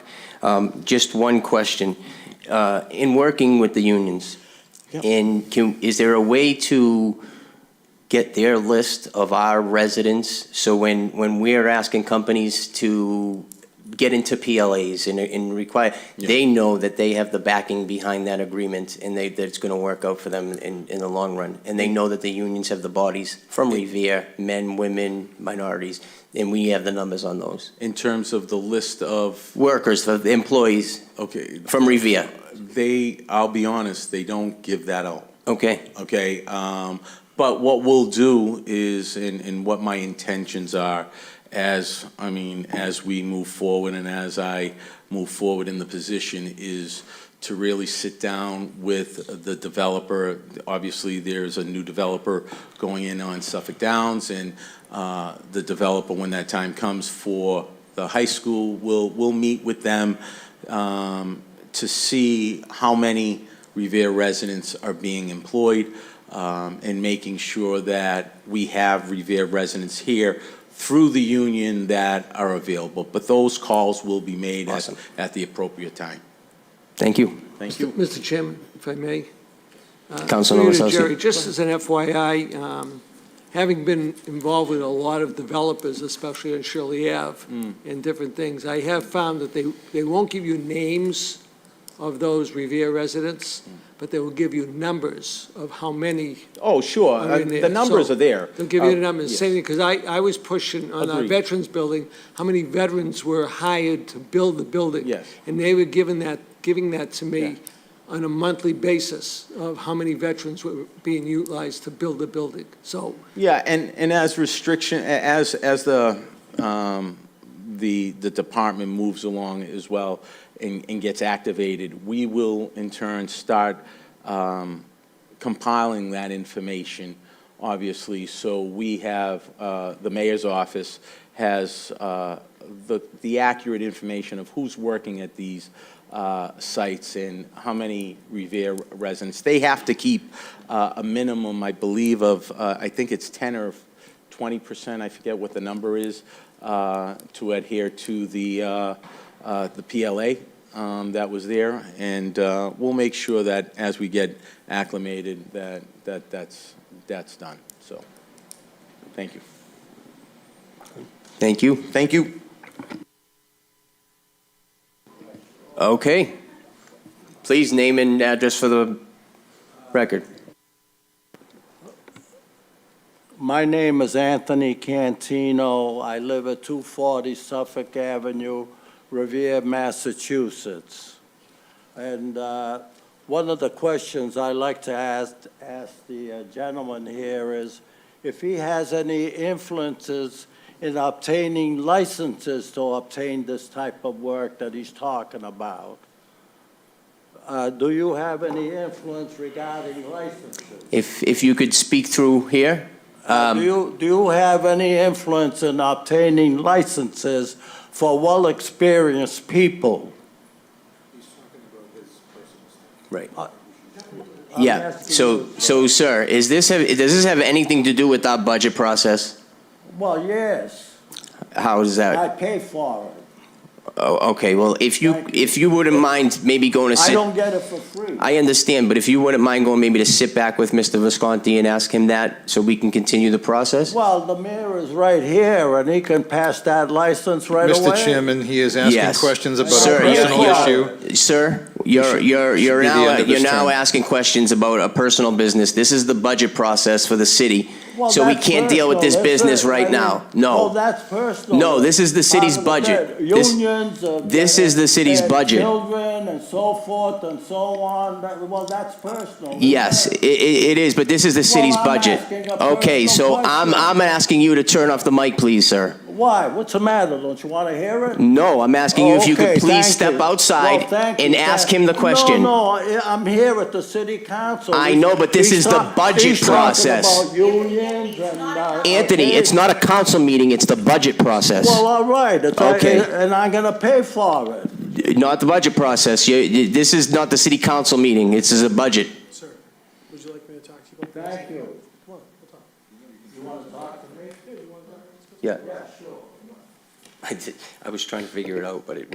Um, Just one question. Uh, In working with the unions, Yeah. and can, is there a way to get their list of our residents? So when, when we're asking companies to get into PLAs and, and require, they know that they have the backing behind that agreement and they, that it's going to work out for them in, in the long run. And they know that the unions have the bodies from Revere, men, women, minorities, and we have the numbers on those. In terms of the list of, Workers, the employees okay, from Revere, they, I'll be honest, they don't give that out. okay? okay? Um, but what we'll do is, and, and what my intentions are as, I mean, as we move forward and as I move forward in the position is to really sit down with the developer. Obviously, there's a new developer going in on Suffolk Downs and, uh, the developer, when that time comes for the high school, will, will meet with them, um, to see how many Revere residents are being employed um, and making sure that we have Revere residents here through the union that are available. But those calls will be made at, Awesome. at the appropriate time. Thank you. Thank you. Mr. Chairman, if I may. uh, Councilman through you to Osowski. Jerry, just as an FYI, um, having been involved with a lot of developers, especially on Shirley Ave and different things, I have found that they, they won't give you names of those Revere residents, but they will give you numbers of how many Oh, sure. I mean, the numbers so- are there. Uh, They'll give you the numbers, same thing, because I, I was pushing on our Um, Agreed. veterans building, how many veterans were hired to build the building? Yes. And they were giving that, giving that to Yeah. me on a monthly basis of how many veterans were being utilized to build the building. So Yeah, and, and as restriction, a- as, as the, um, the, the department moves along as well and, and gets activated, we will in turn start um, compiling that information, obviously. So we have, uh, the mayor's office has uh, the, the accurate information of who's working at these uh, sites and how many Revere residents. They have to keep uh, a minimum, I believe, of, uh, I think it's 10 or 20%, I forget what the number is, uh, to adhere to the, uh, uh, the PLA um, that was there. And uh, we'll make sure that as we get acclimated, that, that, that's, that's done. So, thank you. Thank you. Thank you. Okay. Please name and address for the record. My name is Anthony Cantino. I live at 240 Suffolk Avenue, Revere, Massachusetts. And uh, one of the questions I like to ask, ask the uh, gentleman here is if he has any influences in obtaining licenses to obtain this type of work that he's talking about. Uh, Do you have any influence regarding licenses? If, if you could speak through here. Um, Uh, Do you, do you have any influence in obtaining licenses for well-experienced people? Right. Uh, Yeah, asking so, so sir, is this, have- does this have anything to do with our budget process? Well, yes, How is I that? pay for it. Oh, okay, well, if you, if you wouldn't mind maybe going to I sit. don't get it for free. I understand, but if you wouldn't mind going maybe to sit back with Mr. Visconti and ask him that so we can continue the process? Well, the mayor is right here, and he can pass that license right away. Mr. Chairman, he is asking Yes. questions about a Sir, you're- personal you're- issue. Sir, you're, should- you're, should you're be the now, uh, end of you're his now term. asking questions about a personal business. This is the budget process for the city. Well, So we that's can't deal with this personal. business That's it. I right mean, now. Well, No. that's personal. No, this is the city's Part of budget. the- This- Unions of. this is the city's their budget. Children and so forth and so on, That- well, that's personal. Yes, i- i- it is, but this is the city's I'm budget. asking a Okay, so personal I'm, I'm question. asking you to turn off the mic, please, sir. Why? What's the matter? Don't you want to hear it? No, I'm asking you if you Okay, could please thank step you. outside Well, thank you, and thank- ask him the question. No, no, I- I'm here at the city council. I know, but this He's is the ta- budget he's talking process. about unions and, uh, Anthony, okay. it's not a council meeting, it's the budget process, Well, all right, it's, uh, Okay. and I'm gonna pay for it. not the budget process. You- you- This is not the city council meeting, this is a budget. Sir, would you like me to talk to you about this? Thank you. Come on, we'll talk. Yeah. I was trying to figure it out, but it